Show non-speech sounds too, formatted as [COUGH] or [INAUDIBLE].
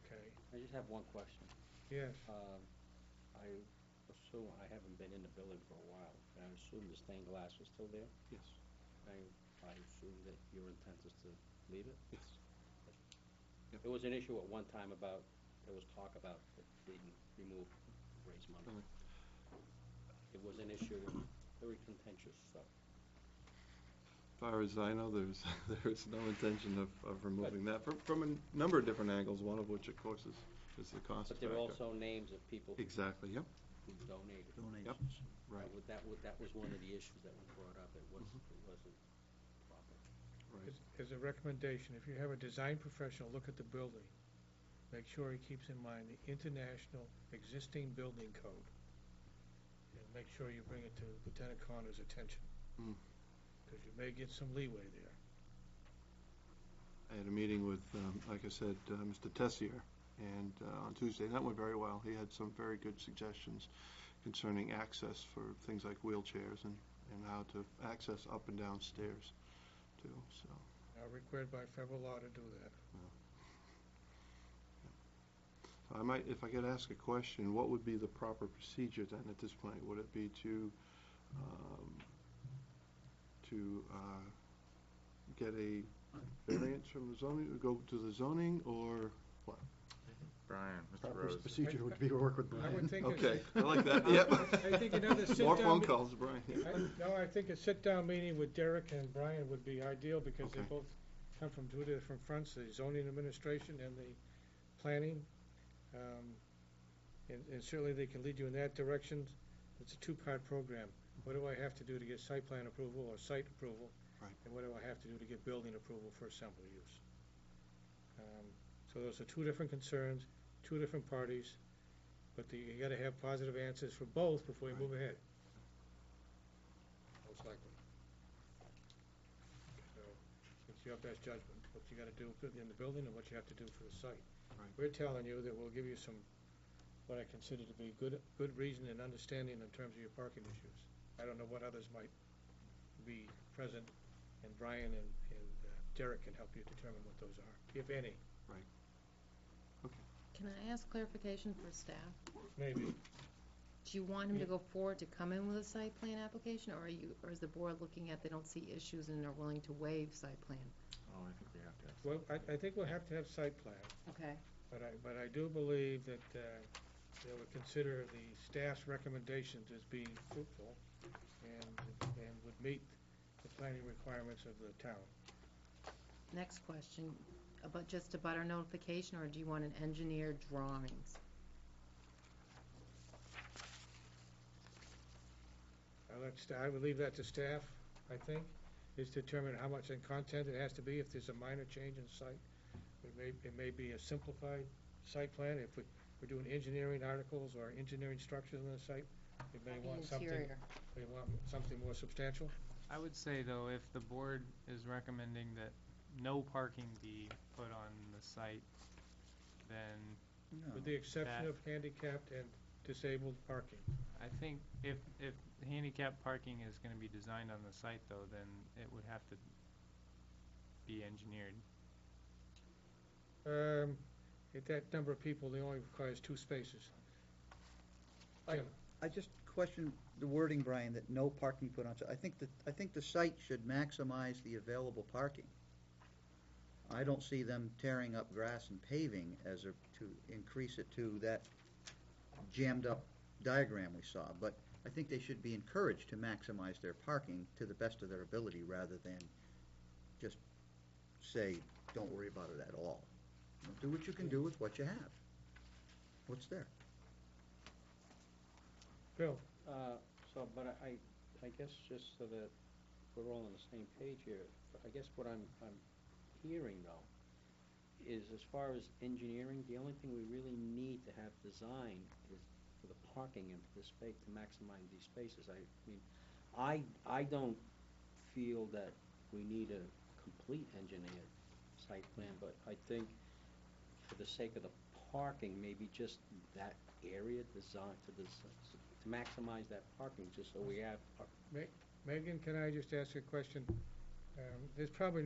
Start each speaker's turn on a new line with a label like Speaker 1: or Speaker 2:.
Speaker 1: just have one question.
Speaker 2: Yes,
Speaker 1: Um, I assume, I haven't been in the building for a while, and I assume the stained glass is still there?
Speaker 2: yes,
Speaker 1: I, I assume that your intent is to leave it?
Speaker 2: yes.
Speaker 1: There was an issue at one time about, there was talk about it being removed, raise money. It was an issue, very contentious, so.
Speaker 3: Far as I know, there's, [LAUGHS] there's no intention of, of removing that, from, from a number of different angles, one of which, of course, is, is the cost
Speaker 1: But there were
Speaker 3: factor.
Speaker 1: also names of people who
Speaker 3: Exactly, yep,
Speaker 1: donated.
Speaker 3: yep, right,
Speaker 1: That was- That was, that was one of the issues that was brought up, it was, it wasn't proper.
Speaker 3: right.
Speaker 2: As- As a recommendation, if you have a design professional look at the building, make sure he keeps in mind the international existing building code. And make sure you bring it to Lieutenant Connor's attention.
Speaker 3: Mm.
Speaker 2: Because you may get some leeway there.
Speaker 3: I had a meeting with, um, like I said, uh, Mr. Tessier, and uh, on Tuesday, and that went very well. He had some very good suggestions concerning access for things like wheelchairs and, and how to access up and down stairs, too, so.
Speaker 2: Now required by federal law to do that.
Speaker 3: I might, if I could ask a question, what would be the proper procedure then at this point? Would it be to, um, to, uh, get a variance from the zoning, or go to the zoning, or
Speaker 4: Brian, Mr.
Speaker 5: Proper
Speaker 4: Rose.
Speaker 5: procedure would be to work with
Speaker 2: I
Speaker 5: Brian.
Speaker 2: would think. a-
Speaker 3: Okay, I like that, yep.
Speaker 2: I think another
Speaker 3: More
Speaker 2: sit-down
Speaker 3: phone
Speaker 2: meet-
Speaker 3: calls, Brian.
Speaker 2: I- No, I think a sit-down meeting with Derek and Brian would be ideal because they
Speaker 3: Okay.
Speaker 2: both come from two different fronts, the zoning administration and the planning. Um, And, and certainly they can lead you in that direction. It's a two-part program. What do I have to do to get site plan approval or site approval?
Speaker 3: Right.
Speaker 2: And what do I have to do to get building approval for assembly use? Um, So those are two different concerns, two different parties, but the- you gotta have positive answers for both before you move ahead. Most likely. So, it's your best judgment, what you gotta do in the building and what you have to do for the site.
Speaker 3: Right.
Speaker 2: We're telling you that we'll give you some, what I consider to be good, good reason and understanding in terms of your parking issues. I don't know what others might be present, and Brian and, and uh, Derek can help you determine what those are, if any,
Speaker 6: Can I ask clarification for staff?
Speaker 2: maybe.
Speaker 6: Do you want him to go forward to come in with a site plan application, or are you, or is the board looking at they don't see issues and are willing to waive site plan?
Speaker 4: Oh, I think we have to.
Speaker 2: Well, I, I think we'll have to have site plan.
Speaker 6: Okay.
Speaker 2: But I, but I do believe that uh, they would consider the staff's recommendations as being fruitful and, and would meet the planning requirements of the town.
Speaker 6: Next question, about just a butter notification, or do you want an engineered drawings?
Speaker 2: I let, sta- I would leave that to staff, I think, is determine how much in content it has to be, if there's a minor change in site. It may, it may be a simplified site plan, if we, we're doing engineering articles or engineering structures in the site, we may want something,
Speaker 6: Interior.
Speaker 2: we want something more substantial.
Speaker 7: I would say, though, if the board is recommending that no parking be put on the site, then
Speaker 2: With the exception
Speaker 7: That-
Speaker 2: of handicapped and disabled parking.
Speaker 7: I think if, if handicap parking is gonna be designed on the site, though, then it would have to be engineered.
Speaker 2: Um, at that number of people, they only requires two spaces.
Speaker 5: I just question the wording, Brian, that no parking put on, I think that, I think the site should maximize the available parking. I don't see them tearing up grass and paving as a, to increase it to that jammed up diagram we saw, but I think they should be encouraged to maximize their parking to the best of their ability rather than just say, don't worry about it at all. Do what you can do with what you have, what's there.
Speaker 2: Bill,
Speaker 1: Uh, So, but I, I- I guess just so that we're all on the same page here, I guess what I'm, I'm hearing though, is as far as engineering, the only thing we really need to have designed is for the parking and for the space, to maximize these spaces. I mean, I, I don't feel that we need a complete engineered site plan, but I think for the sake of the parking, maybe just that area design, to des- to maximize that parking, just so we have a
Speaker 2: Megan, can I just ask a question? Um, there's probably